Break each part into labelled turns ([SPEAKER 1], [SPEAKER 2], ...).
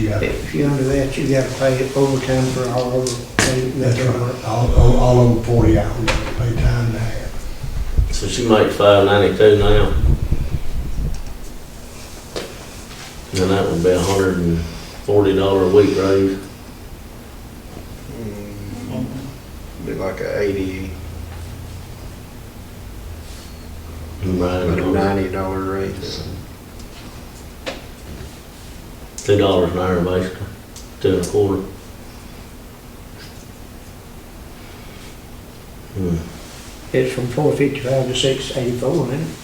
[SPEAKER 1] Yeah,
[SPEAKER 2] If you're under that, you gotta pay overtime for all of the,
[SPEAKER 1] that's right. All, all- all over forty hours, pay time and a half.
[SPEAKER 3] So she makes five ninety-two now. And that would be a hundred and forty dollar a week raise.
[SPEAKER 4] Mm, Be like a eighty,
[SPEAKER 3] Right,
[SPEAKER 4] but a
[SPEAKER 3] $100.
[SPEAKER 4] ninety dollar raise.
[SPEAKER 3] two dollars an hour basically, two and a quarter. Hmm.
[SPEAKER 2] It's from four fifty-five to six eighty-four, isn't it?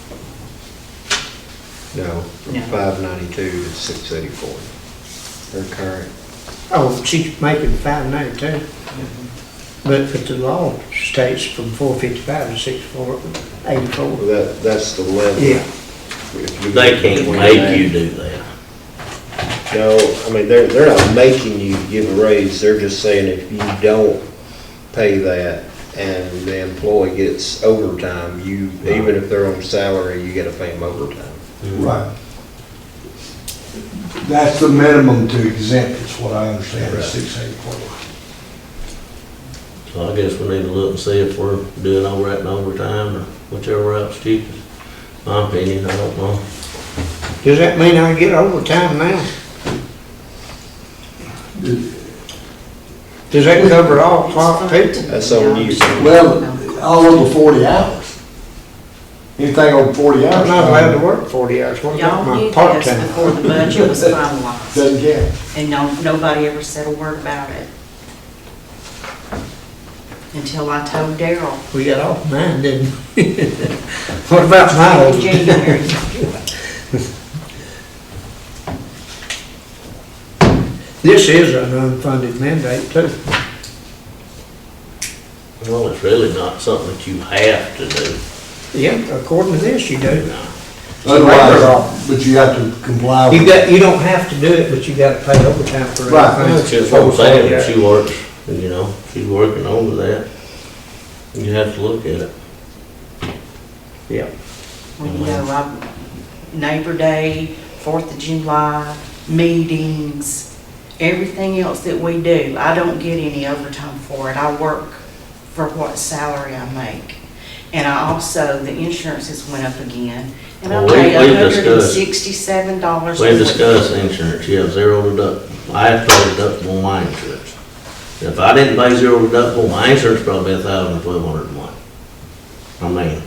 [SPEAKER 4] No, from
[SPEAKER 5] No.
[SPEAKER 4] five ninety-two to six eighty-four. Her current,
[SPEAKER 2] Oh, she's making five ninety-two.
[SPEAKER 1] Mm-hmm.
[SPEAKER 2] But but the law states from four fifty-five to six four
[SPEAKER 4] well,
[SPEAKER 2] eighty-four.
[SPEAKER 4] that, that's the level.
[SPEAKER 2] Yeah.
[SPEAKER 4] If you
[SPEAKER 3] They
[SPEAKER 4] get
[SPEAKER 3] can't
[SPEAKER 4] between
[SPEAKER 3] make
[SPEAKER 4] that-
[SPEAKER 3] you do that.
[SPEAKER 4] No, I mean, they're, they're not making you give a raise, they're just saying if you don't pay that and the employee gets overtime, you, even if they're on salary, you gotta pay them overtime.
[SPEAKER 1] Right. That's the minimum to exempt, is what I understand, is
[SPEAKER 4] Right.
[SPEAKER 1] six eighty-four.
[SPEAKER 3] So I guess we need to look and see if we're doing all right in overtime or whichever route's cheapest. My opinion, I don't know.
[SPEAKER 2] Does that mean I get overtime now? Does that cover all clock people?
[SPEAKER 4] That's on you.
[SPEAKER 1] Well, all over forty hours. Anything over forty hours.
[SPEAKER 2] I'm not allowed to work forty hours, what about
[SPEAKER 5] Y'all
[SPEAKER 2] my
[SPEAKER 5] knew this
[SPEAKER 2] part-time?
[SPEAKER 5] before the budget was finalized,
[SPEAKER 1] Doesn't count.
[SPEAKER 5] and no, nobody ever said a word about it. Until I told Daryl
[SPEAKER 2] We got off mine, didn't we? What about my
[SPEAKER 5] in
[SPEAKER 2] overtime?
[SPEAKER 5] January.
[SPEAKER 2] This is an unfunded mandate too.
[SPEAKER 3] Well, it's really not something that you have to do.
[SPEAKER 2] Yeah, according to this, you do.
[SPEAKER 1] Otherwise, but you have to comply. with-
[SPEAKER 2] You got, you don't have to do it, but you gotta pay overtime for it.
[SPEAKER 1] Right.
[SPEAKER 3] That's just what I'm saying, if she works, you know, she's working over that. You have to look at it.
[SPEAKER 2] Yeah.
[SPEAKER 5] Well, you know, I, Neighbor Day, Fourth of July, meetings, everything else that we do, I don't get any overtime for it. I work for what salary I make. And I also, the insurances went up again, and I
[SPEAKER 3] Well, we-
[SPEAKER 5] paid
[SPEAKER 3] we discussed-
[SPEAKER 5] hundred and sixty-seven dollars.
[SPEAKER 3] We discussed insurance, yeah, zero deductible. I have to pay deductible on my insurance. If I didn't pay zero deductible, my insurance probably a thousand, twelve hundred a month. I mean,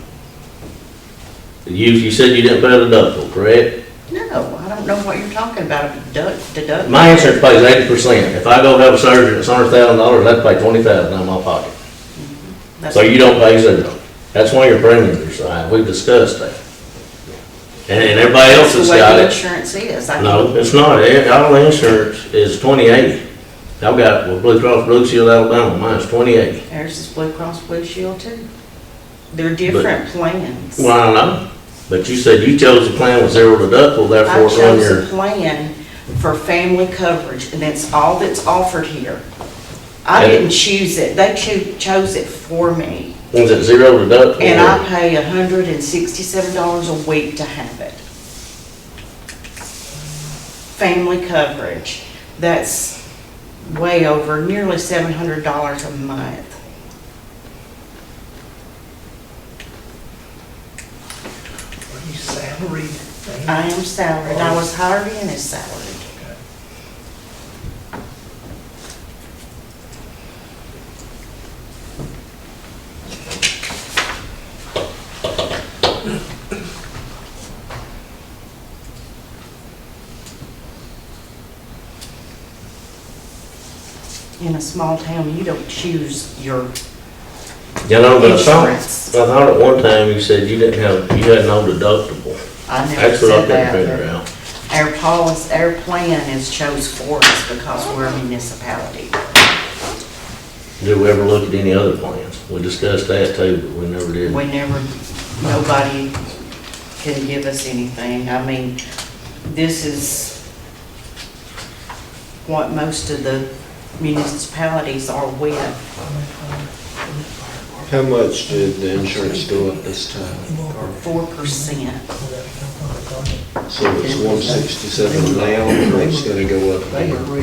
[SPEAKER 3] you, you said you didn't pay a deductible, correct?
[SPEAKER 5] No, I don't know what you're talking about, deduct, deduct.
[SPEAKER 3] My insurance pays eighty percent. If I go have a surgery, it's hundred thousand dollars, I'd pay twenty thousand out of my pocket.
[SPEAKER 5] That's-
[SPEAKER 3] So you don't pay zero. That's why your premiums are so high. We've discussed that. And and everybody else
[SPEAKER 5] That's
[SPEAKER 3] has
[SPEAKER 5] the way
[SPEAKER 3] got
[SPEAKER 5] the
[SPEAKER 3] it.
[SPEAKER 5] insurance is. I
[SPEAKER 3] No, it's not. Eh, All insurance is twenty eighty. I've got, well, Blue Cross Blue Shield Alabama, mine's twenty eighty.
[SPEAKER 5] There's this Blue Cross Blue Shield too. They're different plans.
[SPEAKER 3] Well, I know, but you said you chose a plan with zero deductible, therefore
[SPEAKER 5] I
[SPEAKER 3] it's on
[SPEAKER 5] chose a
[SPEAKER 3] your.
[SPEAKER 5] plan for family coverage, and that's all that's offered here. I
[SPEAKER 3] And-
[SPEAKER 5] didn't choose it, they cho- chose it for me,
[SPEAKER 3] Was it zero deductible?
[SPEAKER 5] and I pay hundred and sixty-seven dollars a week to have it. Family coverage, that's way over, nearly seven hundred dollars a month. I am salaried, I was hired in as salaried. In a small town, you don't choose your
[SPEAKER 3] You know, but I thought, I
[SPEAKER 5] insurance.
[SPEAKER 3] thought at one time you said you didn't have, you had no deductible.
[SPEAKER 5] I never
[SPEAKER 3] That's what I
[SPEAKER 5] said
[SPEAKER 3] couldn't
[SPEAKER 5] that.
[SPEAKER 3] figure out.
[SPEAKER 5] Our policy, our plan is chose for us because we're a municipality.
[SPEAKER 3] Did we ever look at any other plans? We discussed that too, but we never did.
[SPEAKER 5] We never, nobody can give us anything. I mean, this is what most of the municipalities are with.
[SPEAKER 4] How much did the insurance go up this time? Carl?
[SPEAKER 5] four percent.
[SPEAKER 4] So it's one sixty-seven now, and it's gonna go up again.